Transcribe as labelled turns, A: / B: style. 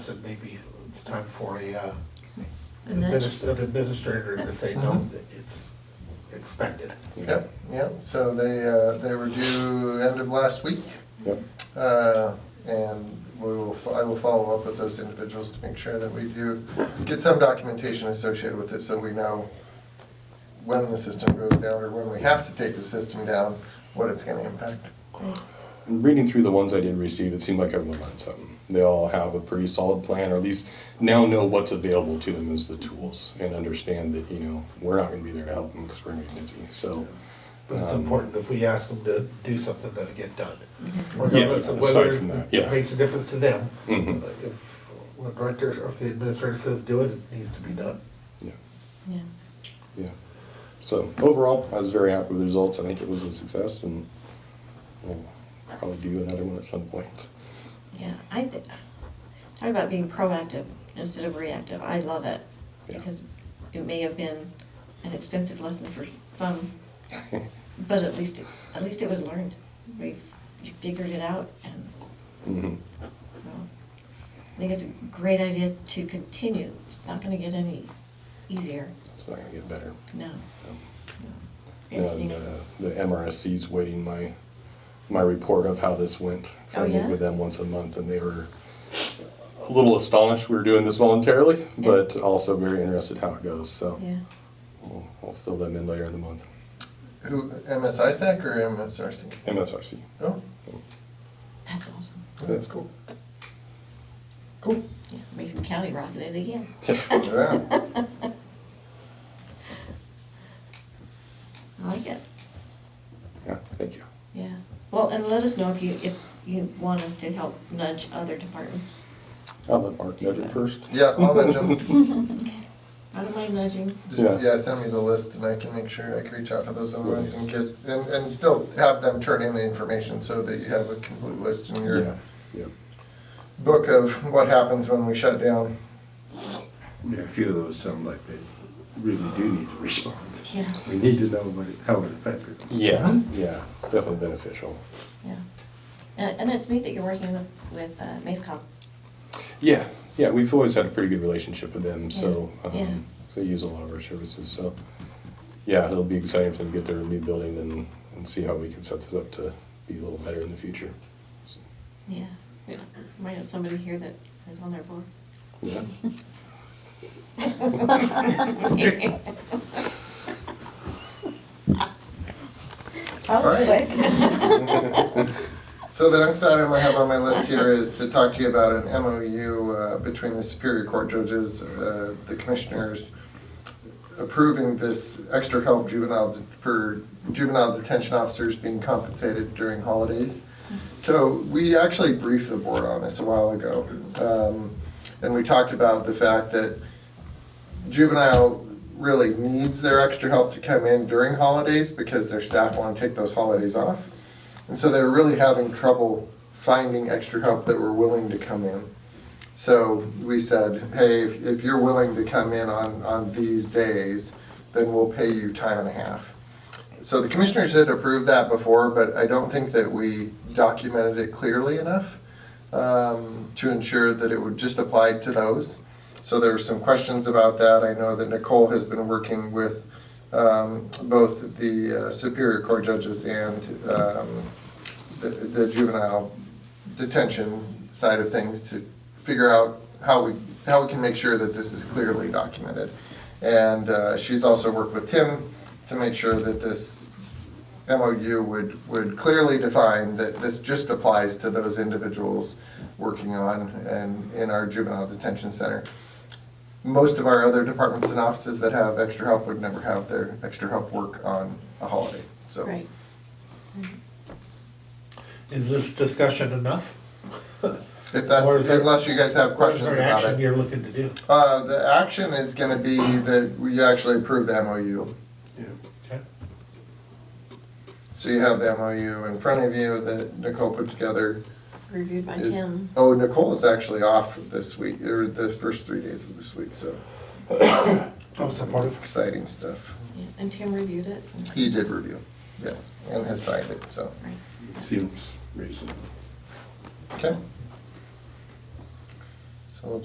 A: said maybe it's time for a, uh,
B: And that-
A: adminis- an administrator to say, no,
C: Mhm.
A: it's expected.
C: Yep, yep, so they, uh, they were due end of last week,
D: Yep.
C: uh, and we will, fo- I will follow up with those individuals to make sure that we do get some documentation associated with it, so we know when the system goes down, or when we have to take the system down, what it's gonna impact.
D: Reading through the ones I did receive, it seemed like everyone learned something. They all have a pretty solid plan, or at least now know what's available to them as the tools, and understand that you know we're not going to be there to help them because we're going to be busy. So,
A: But it's
D: Um,
A: important that we ask them to do something that'll get done.
D: Yeah,
A: Regardless of
D: aside
A: whether
D: from that,
A: it
D: yeah.
A: makes a difference to them.
D: Mhm.
A: If the director, or if the administrator says do it, it needs to be done.
D: yeah,
B: Yeah,
D: yeah. So overall, I was very happy with the results. I think it was a success, and we'll probably do another one at some point.
B: yeah. I th- talk about being proactive instead of reactive. I love it
D: Yeah.
B: because it may have been an expensive lesson for some, but at least it, at least it was learned. We you figured it out, and
D: Mhm.
B: well, I think it's a great idea to continue. It's not going to get any easier.
D: It's not going to get better.
B: No.
D: Um,
B: no.
D: And uh, the MRSC's waiting my, my report of how this went. So
B: Oh,
D: I
B: yeah?
D: meet with them once a month and they were a little astonished we were doing this voluntarily, but also very interested how it goes, so.
B: yeah.
D: We'll, we'll fill them in later in the month.
C: Who, MSISAC E or MSRC?
D: MSRC.
C: Oh,
B: That's awesome.
C: that's cool. Cool.
B: Yeah. Mason County rocking it again.
C: Yeah.
B: I like it.
D: Yeah, thank you.
B: Yeah, well, and let us know if you, if you want us to help nudge other departments.
D: I'll let Mark judge it first.
C: Yeah, I'll let you,
B: I don't mind nudging.
D: Yeah.
C: just, yeah, send me the list and I can make sure, I can reach out to those other ones and get, and, and still have them turn in the information so that you have a complete list in
D: Yeah,
C: your
D: yeah.
C: book of what happens when we shut down.
E: Yeah, a few of those sound like they really do need to respond.
B: Yeah,
E: We need to know what it, how it affected them.
D: Yeah, yeah, it's definitely beneficial.
B: yeah. And, and it's neat that you're working with, with uh, MaceCom.
D: Yeah, yeah, we've always had a pretty good relationship with them, so,
B: Yeah, yeah.
D: um, they use a lot of our services, so. Yeah, it'll be exciting for them to get their new building and, and see how we can set this up to be a little better in the future. So,
B: Yeah. We Might have somebody here that is on their board.
D: Yeah,
B: That was
C: All right. So the next item I have on my list here is to talk to you about an MOU uh, between the Superior Court judges, uh, the commissioners, approving this extra help juvenile, for juvenile detention officers being compensated during holidays. So we actually briefed the board on this a while ago. Um, And we talked about the fact that juvenile really needs their extra help to come in during holidays because their staff want to take those holidays off. And so they were really having trouble finding extra help that were willing to come in. So we said, hey, if, if you're willing to come in on, on these days, then we'll pay you time and a half. So the commissioners had approved that before, but I don't think that we documented it clearly enough um, to ensure that it would just apply to those. So there were some questions about that. I know that Nicole has been working with um, both the uh, Superior Court judges and um, the- the juvenile detention side of things to figure out how we, how we can make sure that this is clearly documented. And uh, she's also worked with Tim to make sure that this MOU would, would clearly define that this just applies to those individuals working on and in our juvenile detention center. Most of our other departments and offices that have extra help would never have their extra help work on a holiday, so.
B: Right.
A: Is this discussion enough?
C: If
A: Or
C: that's,
A: is there-
C: unless you guys have questions
A: What is there
C: about
A: action
C: it.
A: you're looking to do?
C: Uh, the action is gonna be that we actually approve the MOU.
A: Okay.
C: So you have the MOU in front of you that Nicole put together.
B: Reviewed by
C: Is-
B: Tim.
C: Oh, Nicole is actually off this week, or the first three days of this week, so
A: I'm supportive.
C: exciting stuff.
B: Yeah, And Tim reviewed it.
C: He did review, yes, and has signed it, so,
B: Right.
E: It Seems reasonable.
C: okay.